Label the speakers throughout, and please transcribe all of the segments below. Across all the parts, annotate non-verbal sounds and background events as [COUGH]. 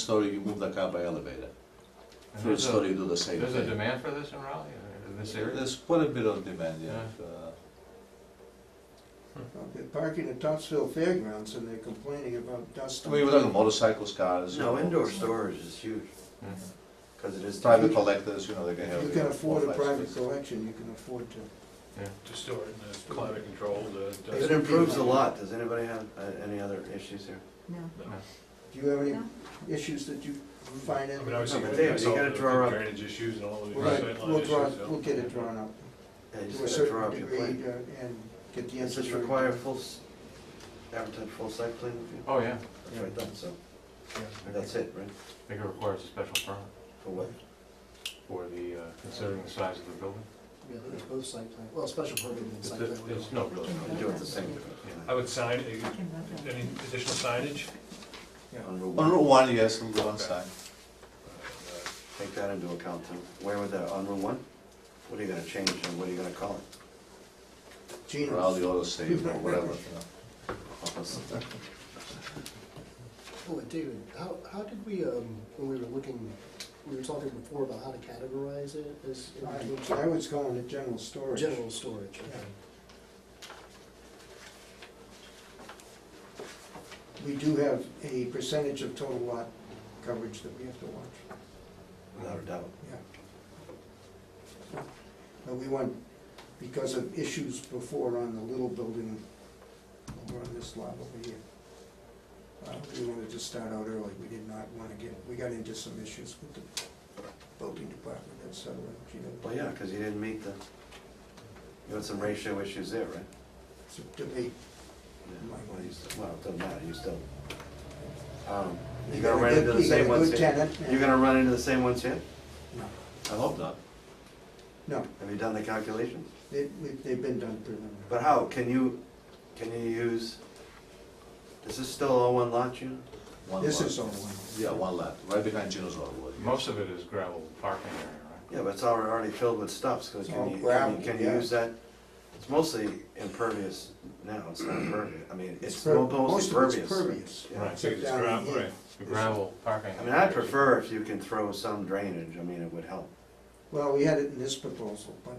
Speaker 1: story, you move the car by elevator.
Speaker 2: And
Speaker 1: Third
Speaker 2: there's a-
Speaker 1: story, you do the same
Speaker 2: There's a
Speaker 1: thing.
Speaker 2: demand for this in Raleigh, or in this area?
Speaker 1: There's quite a bit of demand, yeah. Uh,
Speaker 3: They're parking at Topsfield Fairgrounds and they're complaining about dust.
Speaker 1: I mean, we're talking motorcycles, cars. you
Speaker 4: No,
Speaker 1: know,
Speaker 4: indoor storage is huge,
Speaker 2: Mhm.
Speaker 4: because it is.
Speaker 1: Private collectors, you know, they can have.
Speaker 3: If you
Speaker 1: you
Speaker 3: can
Speaker 1: know, four,
Speaker 3: afford a
Speaker 1: five,
Speaker 3: private
Speaker 1: six.
Speaker 3: collection, you can afford to.
Speaker 5: to store it, and it's climate controlled, uh, it
Speaker 4: It
Speaker 5: doesn't-
Speaker 4: improves a lot, does anybody have uh, any other issues here?
Speaker 6: No.
Speaker 3: Do you have any
Speaker 6: No.
Speaker 3: issues that you find
Speaker 5: I
Speaker 3: in?
Speaker 5: mean, obviously,
Speaker 4: No,
Speaker 5: you're gonna
Speaker 4: but David, you
Speaker 5: solve
Speaker 4: gotta
Speaker 5: the
Speaker 4: draw up-
Speaker 5: Drainage issues and all of the
Speaker 3: We'll
Speaker 5: sight
Speaker 3: get- We'll
Speaker 5: line
Speaker 3: draw,
Speaker 5: issues, so.
Speaker 3: we'll get it drawn up
Speaker 4: Yeah, you
Speaker 3: to a
Speaker 4: just gotta draw
Speaker 3: certain
Speaker 4: up your
Speaker 3: degree
Speaker 4: plan.
Speaker 3: uh, and get the
Speaker 4: Does
Speaker 3: answer.
Speaker 4: this require full, s- advertise full site plan review?
Speaker 2: Oh, yeah,
Speaker 4: That's right, that's so, that's it, right?
Speaker 2: I think it requires a special permit
Speaker 4: For what?
Speaker 2: for the, uh, considering the size of the building.
Speaker 7: Yeah, there's both site plan, well, special permit and
Speaker 2: It's-
Speaker 7: site plan.
Speaker 2: There's no really,
Speaker 4: You do it the same.
Speaker 5: I would sign,
Speaker 6: I
Speaker 5: uh,
Speaker 6: can vote on
Speaker 5: any
Speaker 6: it.
Speaker 5: additional signage,
Speaker 4: On Route
Speaker 1: On Route
Speaker 4: one,
Speaker 1: One, yes, on the one side.
Speaker 4: take that into account too. Where would that, on Route one? What are you gonna change and what are you gonna call it?
Speaker 3: Gene,
Speaker 1: Raleigh Auto Save
Speaker 3: [LAUGHS]
Speaker 1: or whatever, you know.
Speaker 4: Help us.
Speaker 7: Oh, and David, how, how did we, um, when we were looking, we were talking before about how to categorize it as
Speaker 3: I I was calling it general storage.
Speaker 7: general storage, okay.
Speaker 3: We do have a percentage of total lot coverage that we have to watch.
Speaker 4: Without a doubt.
Speaker 3: But we want, because of issues before on the little building over on this lot over here, uh, we wanted to start out early. We did not want to get, we got into some issues with the building department and so, you know.
Speaker 4: Well, yeah, because you didn't meet the, you had some ratio issues there, right?
Speaker 3: It's a debate.
Speaker 4: Yeah, Well, you still- well, it doesn't matter, you still. um, You're
Speaker 3: got
Speaker 4: gonna
Speaker 3: a
Speaker 4: run
Speaker 3: good-
Speaker 4: into the
Speaker 3: you
Speaker 4: same
Speaker 3: got a
Speaker 4: ones
Speaker 3: good
Speaker 4: here?
Speaker 3: tenant and-
Speaker 4: You're gonna run into the same ones here?
Speaker 3: No,
Speaker 4: I hope not.
Speaker 3: No,
Speaker 4: Have you done the calculations?
Speaker 3: they, we- they've been done preliminary.
Speaker 4: But how, can you, can you use, is this still all one lot, you know?
Speaker 1: One
Speaker 3: This
Speaker 1: lot.
Speaker 3: is all one.
Speaker 1: Yeah, one lot, right behind Gino's Auto. World, yes.
Speaker 2: Most of it is gravel parking area, right?
Speaker 4: Yeah, but it's already already filled with stuff, so
Speaker 3: It's
Speaker 4: can
Speaker 3: all
Speaker 4: you, can
Speaker 3: gravel,
Speaker 4: you, can you
Speaker 3: yeah.
Speaker 4: use that? It's mostly impervious now, it's not impervious, I mean, it's
Speaker 3: per-
Speaker 4: mo- mostly
Speaker 3: Most of
Speaker 4: pervious.
Speaker 3: it's pervious.
Speaker 4: Yeah.
Speaker 2: Right.
Speaker 5: Take this
Speaker 3: Down
Speaker 5: grab,
Speaker 3: here.
Speaker 5: right.
Speaker 2: The gravel parking.
Speaker 4: I mean, I prefer if you can throw some drainage, I mean, it would help.
Speaker 3: Well, we had it in this proposal, but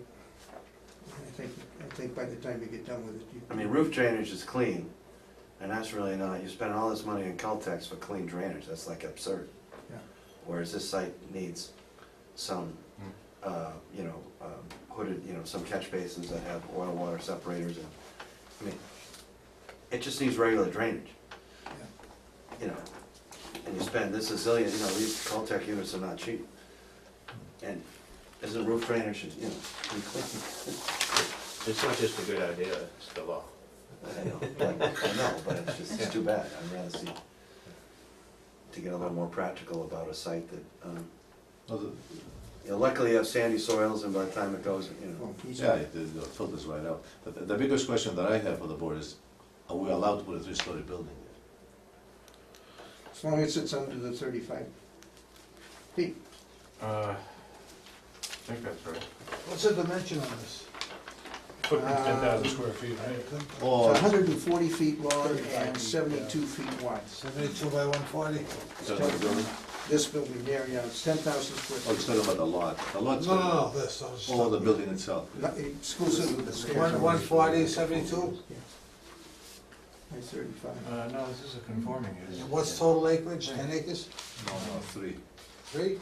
Speaker 3: I think, I think by the time you get done with it, you.
Speaker 4: I mean, roof drainage is clean, and that's really not, you spend all this money in Caltex for clean drainage, that's like absurd.
Speaker 3: Yeah.
Speaker 4: Whereas this site needs some,
Speaker 2: Hmm.
Speaker 4: uh, you know, um, hooded, you know, some catch basins that have oil water separators and, I mean, it just needs regular drainage. You know, and you spend this a zillion, you know, these Caltech units are not cheap. And isn't roof drainage, you know, pretty clean?
Speaker 8: It's not just a good idea, it's the law.
Speaker 4: I know, but- I know, but it's just, it's too bad, I'd rather see, to get a little more practical about a site that, um,
Speaker 1: No, the-
Speaker 4: you know, luckily you have sandy soils and by the time it goes, you know,
Speaker 3: Well, he's-
Speaker 1: Yeah, it, it it filters right out. But the, the biggest question that I have for the board is, are we allowed to put a three-story building there?
Speaker 3: As long as it's under the thirty-five feet.
Speaker 2: Uh, I think that's right.
Speaker 7: What's the dimension on this?
Speaker 5: Footprint's ten thousand
Speaker 3: Um,
Speaker 5: square feet, right?
Speaker 3: It's
Speaker 1: Or,
Speaker 3: hundred and forty feet long
Speaker 7: 35
Speaker 3: and
Speaker 7: feet,
Speaker 3: seventy-two feet wide.
Speaker 7: Seventy-two by one forty?
Speaker 1: the building,
Speaker 3: This building there, yeah, it's ten thousand
Speaker 1: or Oh, it's
Speaker 3: square feet.
Speaker 1: talking about the lot, the lot's.
Speaker 7: this, I was.
Speaker 1: Or the building itself.
Speaker 3: Not- Exclusive of the stairs.
Speaker 7: forty, seventy-two?
Speaker 3: Yeah. By thirty-five.
Speaker 2: Uh, no, this is a conforming use.
Speaker 7: total acreage, ten acres,
Speaker 1: No, no, three,
Speaker 7: three?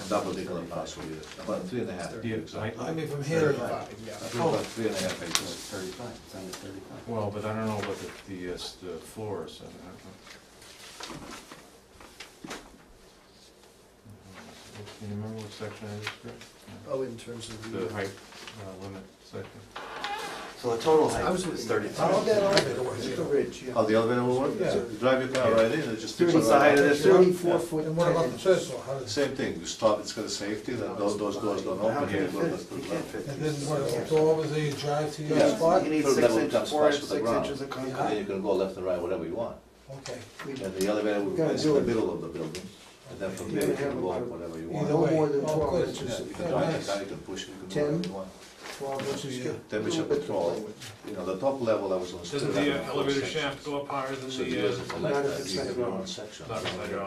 Speaker 1: and that particular parcel, yeah, about three and a half,
Speaker 2: Yeah,
Speaker 1: exactly.
Speaker 2: I-
Speaker 7: mean, from
Speaker 4: here to-
Speaker 1: About three and a half acres.
Speaker 4: thirty-five, it's under thirty-five.
Speaker 2: Well, but I don't know what the, the, uh, s- the floor is. I don't know. Mm-hmm. Can you remember what section it is, Greg?
Speaker 7: Oh, in terms of the.
Speaker 2: The height uh, limit section.
Speaker 4: So the total
Speaker 7: I
Speaker 4: height
Speaker 7: was
Speaker 4: is
Speaker 7: looking- I'll
Speaker 4: thirty-five.
Speaker 7: get all of it, or
Speaker 3: It's
Speaker 7: is
Speaker 3: the
Speaker 7: it-
Speaker 3: ridge, yeah.
Speaker 1: Oh, the elevator will work?
Speaker 7: Yeah.
Speaker 1: You Drive your car right in, it just sticks
Speaker 4: What's the height
Speaker 1: right
Speaker 4: of
Speaker 1: out.
Speaker 4: this roof?
Speaker 3: Thirty-four foot.
Speaker 7: And what about the
Speaker 3: 10
Speaker 7: first one? How does-
Speaker 1: Same thing, you stop, it's got a safety, that those, those doors don't
Speaker 4: How
Speaker 1: open,
Speaker 4: can
Speaker 1: you
Speaker 4: it
Speaker 1: go to the
Speaker 4: fit? You
Speaker 1: third level.
Speaker 4: can't fit.
Speaker 7: And
Speaker 4: two
Speaker 7: then what,
Speaker 4: stories.
Speaker 7: you go over there, you drive to your
Speaker 1: Yeah.
Speaker 7: spot?
Speaker 4: You need
Speaker 1: Third
Speaker 4: six
Speaker 1: level
Speaker 4: inches,
Speaker 1: comes
Speaker 4: four,
Speaker 1: flush with the
Speaker 4: six
Speaker 1: ground.
Speaker 4: inches of
Speaker 1: And then
Speaker 4: concrete.
Speaker 1: you can go left and right, whatever you want.
Speaker 7: Okay.
Speaker 3: We-
Speaker 1: And the elevator will
Speaker 3: Gotta
Speaker 1: place
Speaker 3: do
Speaker 1: in the
Speaker 3: it.
Speaker 1: middle of the building, and then from
Speaker 3: You
Speaker 1: there you
Speaker 3: can have
Speaker 1: can
Speaker 3: a
Speaker 1: go up
Speaker 3: little-
Speaker 1: whatever you
Speaker 7: Either
Speaker 1: want.
Speaker 3: No
Speaker 7: way.
Speaker 3: more than
Speaker 7: Oh, of
Speaker 3: twelve
Speaker 7: course.
Speaker 1: Yeah,
Speaker 3: inches.
Speaker 1: you
Speaker 7: Yeah,
Speaker 1: can drive
Speaker 7: nice.
Speaker 1: your car, you can push, it, you can do
Speaker 3: Ten.
Speaker 1: whatever you want.
Speaker 3: Twelve inches.
Speaker 1: Yeah, temperature
Speaker 3: Little bit
Speaker 1: control.
Speaker 3: below it.
Speaker 1: You know, the top level I was on.
Speaker 5: Doesn't the uh, elevator shaft go up higher than
Speaker 1: So you
Speaker 5: the, uh,
Speaker 1: doesn't
Speaker 3: Not
Speaker 1: elect
Speaker 3: if
Speaker 1: that,
Speaker 3: it's
Speaker 1: you have your
Speaker 3: hydraulic.
Speaker 1: own section.
Speaker 5: not, not,